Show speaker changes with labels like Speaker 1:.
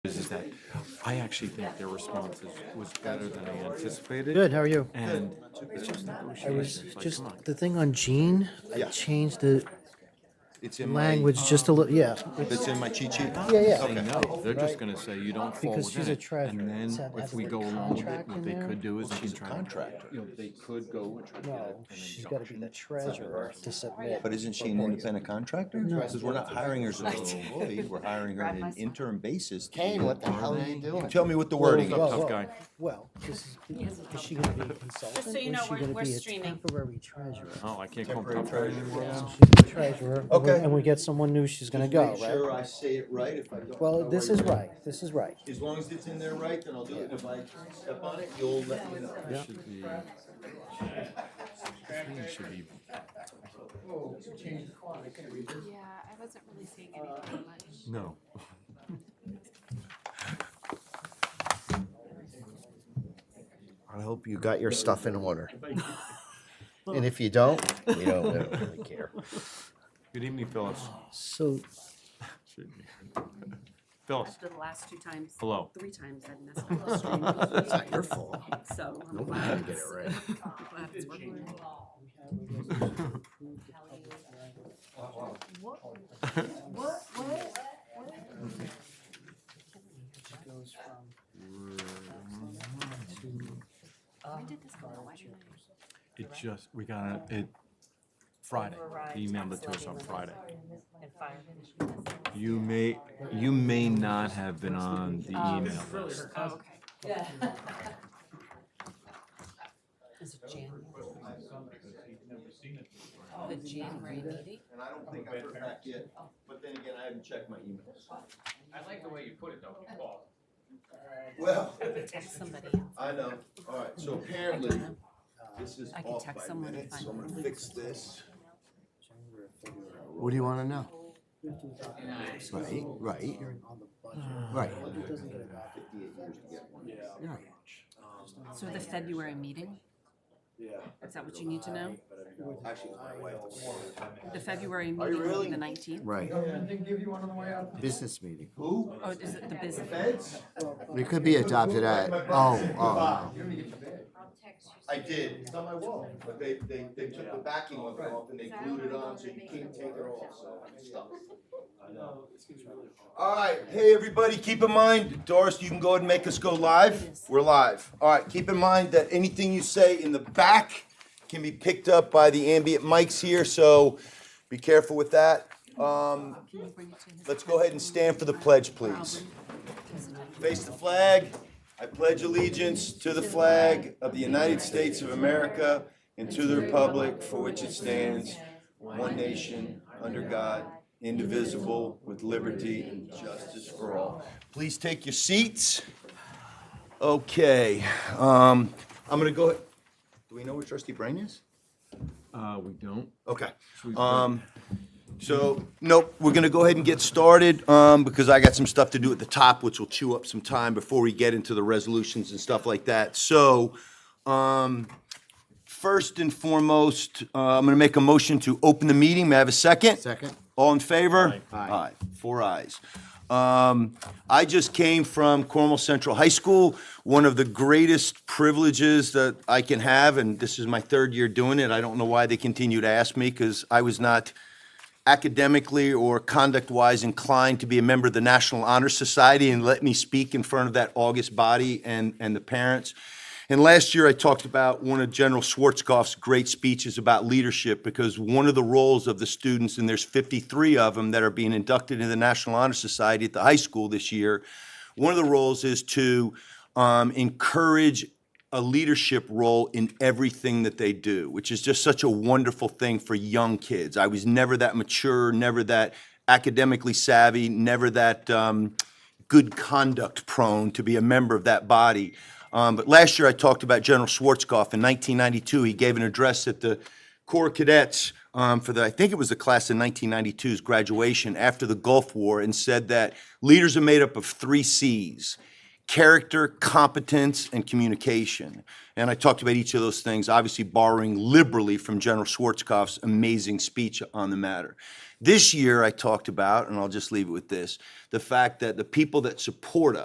Speaker 1: that I actually think their response is, was better than I anticipated.
Speaker 2: Good, how are you?
Speaker 1: And it's just
Speaker 2: I was
Speaker 1: negotiations, like,
Speaker 2: just,
Speaker 1: come on.
Speaker 2: the thing on Gene, I
Speaker 3: Yeah.
Speaker 2: changed the
Speaker 3: It's in my.
Speaker 2: language just a little, yeah.
Speaker 3: That's in my cheat sheet?
Speaker 2: Yeah, yeah.
Speaker 1: They know, they're just gonna say you don't fall
Speaker 2: Because she's
Speaker 1: within
Speaker 2: a
Speaker 1: it. And
Speaker 2: treasurer. Does
Speaker 1: then
Speaker 2: that
Speaker 1: if
Speaker 2: have
Speaker 1: we
Speaker 2: the
Speaker 1: go along with it,
Speaker 2: contract
Speaker 1: what
Speaker 2: in
Speaker 1: they
Speaker 2: there?
Speaker 1: could do is they
Speaker 3: She's
Speaker 1: can
Speaker 3: a
Speaker 1: try and.
Speaker 3: contractor.
Speaker 1: You know, they could go. and get it
Speaker 2: No,
Speaker 1: and then
Speaker 2: she's
Speaker 1: don't.
Speaker 2: gotta be the treasurer to submit.
Speaker 3: But isn't she an independent contractor? Because we're not hiring her as an employee, we're hiring her on an interim basis. to do
Speaker 4: Kane, what
Speaker 3: that.
Speaker 4: the hell are you doing?
Speaker 3: Tell me what the wording
Speaker 2: Well,
Speaker 3: is.
Speaker 1: tough
Speaker 2: well,
Speaker 1: guy.
Speaker 2: Well, this is, is she gonna be a consultant?
Speaker 5: so you
Speaker 2: or is
Speaker 5: know,
Speaker 2: she
Speaker 5: we're-
Speaker 2: gonna
Speaker 5: we're
Speaker 2: be a
Speaker 5: streaming.
Speaker 2: Temporary treasurer.
Speaker 1: Oh, I can't call them tough guy anymore. now?
Speaker 2: She's the treasurer. and we-
Speaker 3: Okay.
Speaker 2: And we get someone new, she's gonna go, right?
Speaker 3: I say it right. If I don't.
Speaker 2: Well, this is right, this is right.
Speaker 3: As long as it's in there right, then I'll do it. If I step on it, you'll let me know.
Speaker 1: It Should be. it Should be,
Speaker 5: Yeah, I wasn't really seeing anything much.
Speaker 1: no.
Speaker 4: I hope you got your stuff in order. And if you don't, we don't we don't really care.
Speaker 1: Good evening, Phyllis.
Speaker 2: So, Oh.
Speaker 1: Should be. Phyllis,
Speaker 6: After the last two times,
Speaker 1: hello.
Speaker 6: three times I've messed up the
Speaker 4: It's not your fault.
Speaker 6: stream, so. I'm
Speaker 4: Nobody
Speaker 6: glad
Speaker 4: can get it
Speaker 6: it's-
Speaker 4: right.
Speaker 6: I'm glad it's working.
Speaker 5: When did this go out? Why didn't I-
Speaker 1: It just, we got it, Friday, He emailed it to us on Friday. You may, you may not have been on the email list.
Speaker 6: Oh, okay.
Speaker 7: Is it January? The January meeting?
Speaker 3: And I don't think I've heard back yet, but then again, I haven't checked my emails.
Speaker 8: I like the way you put it though, Paul.
Speaker 3: Well,
Speaker 7: Text somebody else.
Speaker 3: I know. All right, so apparently, this is
Speaker 7: I can
Speaker 3: off
Speaker 7: text
Speaker 3: by
Speaker 7: someone to
Speaker 3: minutes,
Speaker 7: find
Speaker 3: so I'm
Speaker 7: out.
Speaker 3: gonna fix this.
Speaker 4: What do you wanna know? Right,
Speaker 2: Right,
Speaker 4: right, right, right.
Speaker 7: So the February meeting? Yeah. Is that what you need to know? The February
Speaker 3: Are you
Speaker 7: meeting will
Speaker 3: really?
Speaker 7: be the nineteenth?
Speaker 4: Right. Business meeting.
Speaker 3: Who?
Speaker 7: Oh, is it the business?
Speaker 3: Feds?
Speaker 4: It could be adopted at, oh, oh, no.
Speaker 3: I did, it's on my wall, but they, they, they took the backing of it off and they glued it on, so you can't take it off, so it's stuck. Alright, hey, everybody, keep in mind, Doris, you can go ahead and make us go live, we're live. Alright, keep in mind that anything you say in the back can be picked up by the ambient mics here, so be careful with that. Um,
Speaker 7: Can you bring it to his
Speaker 3: let's go ahead and
Speaker 7: attention?
Speaker 3: stand for the pledge,
Speaker 7: I'll
Speaker 3: please.
Speaker 7: bring it to his attention.
Speaker 3: Face the flag. I pledge allegiance to the flag of the United States of America and to the republic for which it stands, one nation, under God, indivisible, with liberty and justice for all. Please take your seats. Okay, um, I'm gonna go, do we know where trustee Brain is?
Speaker 1: Uh, we don't.
Speaker 3: Okay.
Speaker 1: Should we-
Speaker 3: Um, so, nope, we're gonna go ahead and get started, um, because I got some stuff to do at the top, which will chew up some time before we get into the resolutions and stuff like that. So, um, first and foremost, uh, I'm gonna make a motion to open the meeting. May I have a second?
Speaker 4: Second?
Speaker 3: All in favor?
Speaker 1: Aye.
Speaker 3: Aye. Four ayes. Um, I just came from Cornwall Central High School. One of the greatest privileges that I can have, and this is my third year doing it. I don't know why they continue to ask me because I was not academically or conduct-wise inclined to be a member of the National Honor Society and let me speak in front of that August body and, and the parents. And last year, I talked about one of General Schwarzkopf's great speeches about leadership, because one of the roles of the students, and there's 53 of them that are being inducted into the National Honor Society at the high school this year, one of the roles is to um, encourage a leadership role in everything that they do, which is just such a wonderful thing for young kids. I was never that mature, never that academically savvy, never that um, good conduct prone to be a member of that body. Um, but last year I talked about General Schwarzkopf in 1992. He gave an address at the Corps Cadets um, for the, I think it was the class of 1992's graduation after the Gulf War, and said that leaders are made up of three C's character, competence, and communication. And I talked about each of those things, obviously borrowing liberally from General Schwarzkopf's amazing speech on the matter. This year, I talked about, and I'll just leave it with this the fact that the people that support us.